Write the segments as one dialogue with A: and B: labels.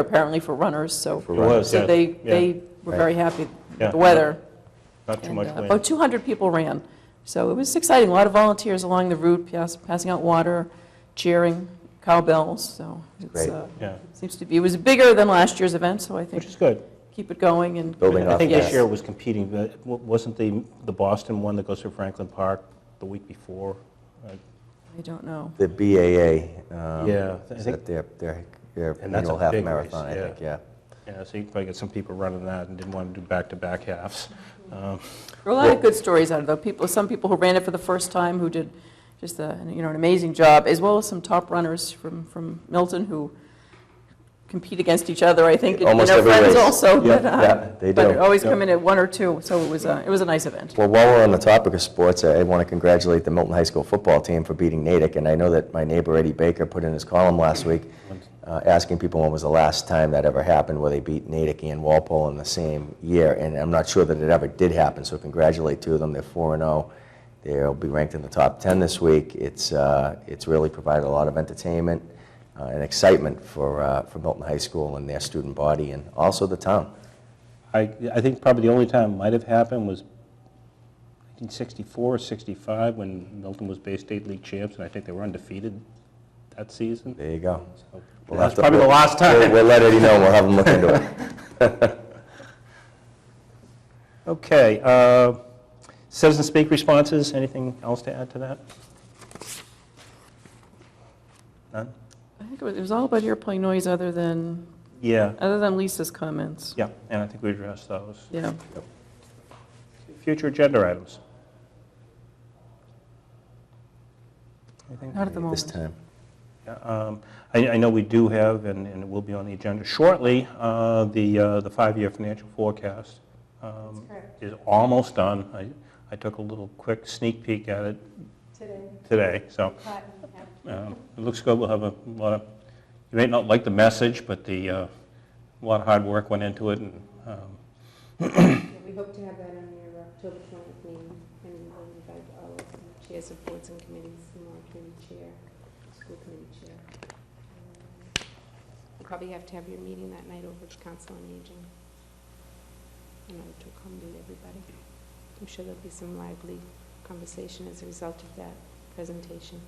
A: apparently for runners, so.
B: It was,
A: So
B: yes.
A: they,
B: Yeah.
A: they were very happy
B: Yeah.
A: with the weather.
B: Not too
A: And,
B: much
A: uh,
B: wind.
A: About 200 people ran, so it was exciting, a lot of volunteers along the route, pass- passing out water, cheering, cowbells, so. it's,
C: Great.
A: uh,
B: Yeah,
A: Seems to be, it was bigger than last year's event, so I
B: which
A: think
B: is good.
A: keep it going and.
C: Building
B: I
C: off
B: think
C: of
B: this
C: that.
B: year was competing, but w- wasn't the, the Boston one that goes through Franklin Park the week before? Uh,
A: I don't know.
C: The BAA. um,
B: Yeah, I
C: Is
B: think-
C: that their, their, their
B: And that's a
C: annual half
B: big race,
C: marathon, I
B: yeah.
C: think, yeah.
B: Yeah, so you probably get some people running that and didn't want to do back-to-back halves.
A: There
B: Um,
A: were a lot of good stories out of it. People, some people who ran it for the first time who did just a, you know, an amazing job, as well as some top runners from, from Milton who compete against each other, I think, and
C: Almost
A: their
C: every
A: friends
C: race.
A: also.
C: Yeah,
A: but, uh,
C: yeah, they
A: But
C: do.
A: always
B: Yeah.
A: come in at one or two, so it was, a- it was a nice event.
C: Well, while we're on the topic of sports, I want to congratulate the Milton High School football team for beating Natick, and I know that my neighbor Eddie Baker put in his column last week uh, asking people when was the last time that ever happened where they beat Natick and Walpole in the same year, and I'm not sure that it ever did happen, so congratulate two of them. They're 4 and 0. They'll be ranked in the top 10 this week. It's, uh, it's really provided a lot of entertainment uh, and excitement for, uh, for Milton High School and their student body and also the town.
B: I, I think probably the only time it might have happened was 1964 or 65, when Milton was Bay State League champs, and I think they were undefeated that season.
C: There you go. We'll have
B: That's
C: to-
B: probably the last
C: We'll,
B: time.
C: we'll let Eddie know and we'll have him look into it.
B: Okay, uh, citizen speak responses, anything else to add to that? None?
A: I think it was, it was all about airplane noise other than,
B: Yeah,
A: other than Lisa's comments.
B: yeah, and I think we addressed those.
A: Yeah.
B: Future agenda items? Anything?
A: Not at the
C: This
A: moment.
C: time.
B: Um, I I know we do have, and and it will be on the agenda shortly, uh, the uh, the five-year financial forecast um, is almost done. I I took a little quick sneak peek at it
D: today.
B: today, so
D: But, yeah.
B: um, it looks good. We'll have a lot of, you may not like the message, but the, uh, a lot of hard work went into it, and um,
D: Yeah, We hope to have that on your October 20th meeting, and we will invite all of the chairs of boards and committees, the law committee chair, school committee chair. Um, You probably have to have your meeting that night over at council on aging in order to accommodate everybody. I'm sure there'll be some lively conversation as a result of that presentation.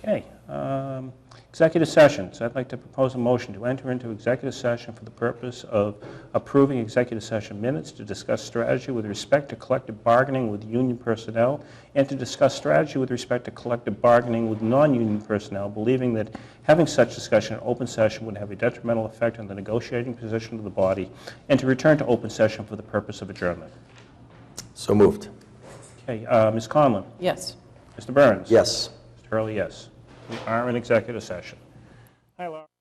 B: Okay, um, executive sessions. I'd like to propose a motion to enter into executive session for the purpose of approving executive session minutes to discuss strategy with respect to collective bargaining with union personnel and to discuss strategy with respect to collective bargaining with non-union personnel, believing that having such discussion in open session would have a detrimental effect on the negotiating position of the body, and to return to open session for the purpose of adjournment.
C: So moved.
B: Okay, uh, Ms. Conlon?
A: Yes.
B: Mr. Burns?
C: Yes.
B: Mr. Hurley, yes. We are in executive session. Hi, Laura.